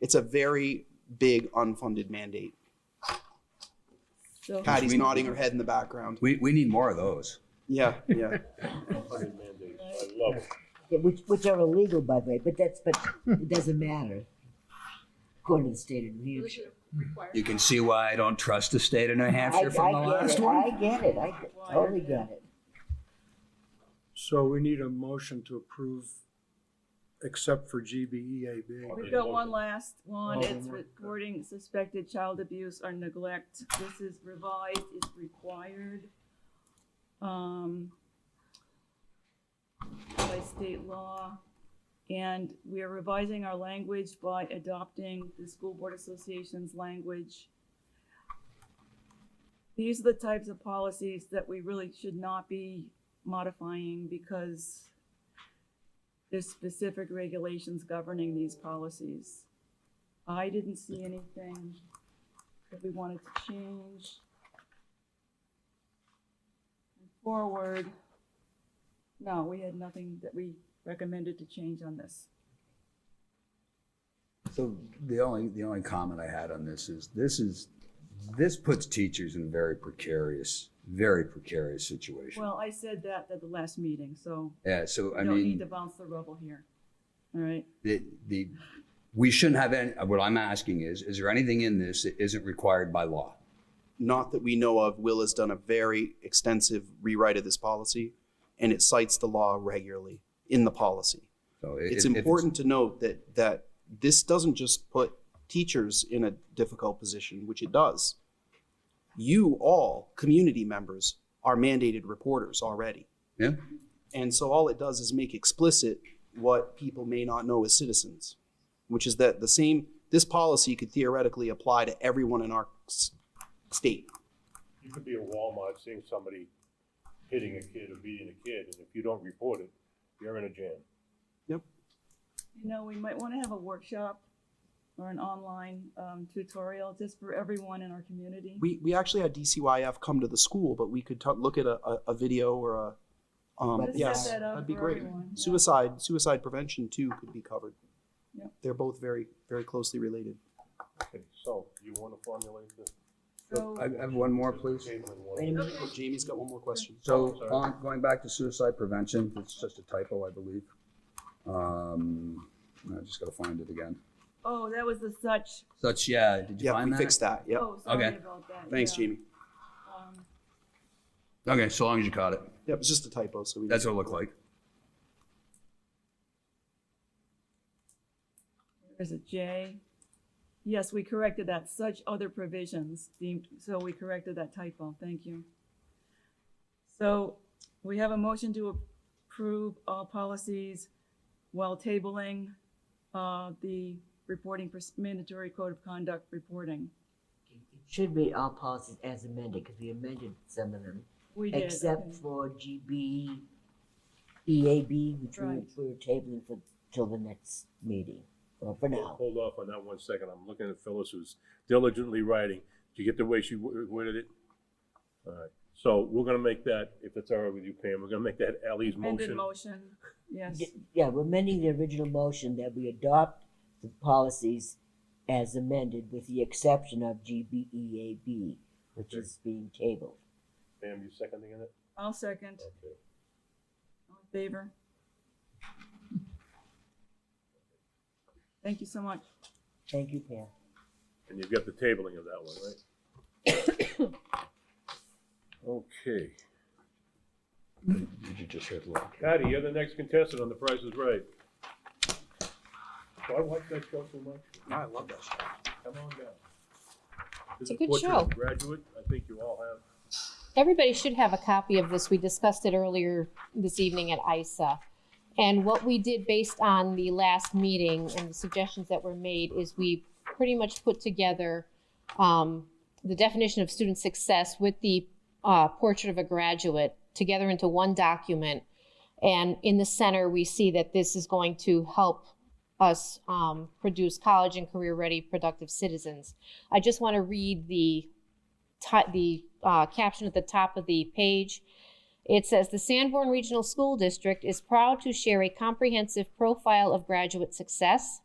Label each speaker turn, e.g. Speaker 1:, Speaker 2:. Speaker 1: It's a very big unfunded mandate.
Speaker 2: So,
Speaker 1: Patty's
Speaker 3: we-
Speaker 1: nodding her head in the background.
Speaker 3: We, we need more of those.
Speaker 1: Yeah, yeah.
Speaker 4: Fucking mandate. I love it.
Speaker 5: Yeah, which, which are illegal, by the way, but that's, but it doesn't matter. According to the state of New
Speaker 2: we
Speaker 5: Hampshire.
Speaker 2: should require.
Speaker 3: You can see why I don't trust the state of New
Speaker 5: I,
Speaker 3: Hampshire from the
Speaker 5: I get
Speaker 3: last
Speaker 5: it,
Speaker 3: one.
Speaker 5: I get it, I get- totally get it.
Speaker 6: So we need a motion to approve, except for E GBEAB.
Speaker 2: We've got one last one.
Speaker 6: Oh,
Speaker 2: It's
Speaker 6: one more.
Speaker 2: reporting suspected child abuse or neglect. This is revised, it's required. Um, by state law. And we are revising our language by adopting the School Board Association's language. These are the types of policies that we really should not be modifying because there's specific regulations governing these policies. I didn't see anything that we wanted to change. Forward, no, we had nothing that we recommended to change on this.
Speaker 3: So the only, the only comment I had on this is, this is, this puts teachers in a very precarious, very precarious situation.
Speaker 2: Well, I said that at the last meeting, so
Speaker 3: Yeah, so
Speaker 2: we
Speaker 3: I
Speaker 2: don't need to
Speaker 3: mean,
Speaker 2: bounce the rubble here. All right,
Speaker 3: the, the, we shouldn't have any, what I'm asking is, is there anything in this that isn't required by law?
Speaker 1: Not that we know of, Will has done a very extensive rewrite of this policy, and it cites the law regularly in the policy.
Speaker 3: So i-
Speaker 1: It's
Speaker 3: if- if
Speaker 1: important to note that, that this doesn't just put teachers in a difficult position, which it does. You all, community members, are mandated reporters already.
Speaker 3: Yeah.
Speaker 1: And so all it does is make explicit what people may not know as citizens, which is that the same, this policy could theoretically apply to everyone in our s- state.
Speaker 4: You could be at Walmart seeing somebody hitting a kid or beating a kid, and if you don't report it, you're in a jam.
Speaker 2: you know, we might want to have a workshop or an online um, tutorial just for everyone in our community.
Speaker 1: We, we actually had DCYF come to the school, but we could ta- look at a, a, a video or a, um,
Speaker 5: Let's set
Speaker 1: yes,
Speaker 2: that up
Speaker 1: that'd be
Speaker 2: for
Speaker 1: great.
Speaker 2: everyone, yeah.
Speaker 1: Suicide, suicide prevention too could be covered.
Speaker 2: Yep.
Speaker 1: They're both very, very closely related.
Speaker 4: Okay, so you want to formulate this?
Speaker 2: So,
Speaker 3: I I have one more, please.
Speaker 4: Caitlin, one.
Speaker 5: Wait a minute.
Speaker 1: Jamie's got one more question.
Speaker 3: So on, going back to suicide prevention, it's just a typo, I believe. Um, I just gotta find it again.
Speaker 2: oh, that was the such,
Speaker 3: Such, yeah, did you
Speaker 1: Yeah,
Speaker 3: find
Speaker 1: we
Speaker 3: that?
Speaker 1: fixed that, yep.
Speaker 2: oh, sorry
Speaker 3: Okay.
Speaker 2: about that.
Speaker 1: Thanks,
Speaker 2: yeah.
Speaker 1: Jamie.
Speaker 2: Um,
Speaker 3: Okay, so long as you caught it.
Speaker 1: Yeah, it was just a typo, so we.
Speaker 3: That's what it looked like.
Speaker 2: There's a J. Yes, we corrected that. Such other provisions deemed, so we corrected that typo. Thank you. So we have a motion to approve all policies while tabling uh, the reporting, pers- mandatory code of conduct reporting.
Speaker 5: Should be all policies as amended, because we amended some of them,
Speaker 2: We did.
Speaker 5: except
Speaker 2: okay.
Speaker 5: for GB, EAB, which we were-
Speaker 2: Right.
Speaker 5: we were tabling for, till the next meeting, or for now.
Speaker 4: Hold off on that one second. I'm looking at Phyllis who's diligently writing. Did you get the way she wo- worded it? All right, so we're gonna make that, if it's all right with you, Pam, we're gonna make that Ally's
Speaker 2: Amended
Speaker 4: motion.
Speaker 2: motion, yes.
Speaker 5: Y- Yeah, we're amending the original motion that we adopt the policies as amended with the exception of GBEAB, which
Speaker 4: Okay.
Speaker 5: is being tabled.
Speaker 4: Pam, you seconding it?
Speaker 2: I'll second.
Speaker 4: Okay.
Speaker 2: All in favor? Thank you so much.
Speaker 5: Thank you, Pam.
Speaker 4: And you've got the tabling of that one, right? Okay.
Speaker 3: Did you just hit look?
Speaker 4: Patty, you're the next contestant on The Price is Right. Do I watch that show too much?
Speaker 1: I love that show.
Speaker 4: Come on down. This
Speaker 7: It's a
Speaker 4: is
Speaker 7: good
Speaker 4: Portrait of
Speaker 7: show.
Speaker 4: a Graduate, I think you all have.
Speaker 7: Everybody should have a copy of this. We discussed it earlier this evening at ISA. And what we did based on the last meeting and the suggestions that were made is we pretty much put together um, the definition of student success with the uh, portrait of a graduate together into one document. And in the center, we see that this is going to help us um, produce college and career ready productive citizens. I just want to read the ti- the uh, caption at the top of the page. It says the Sanborn Regional School District is proud to share a comprehensive profile of graduate success.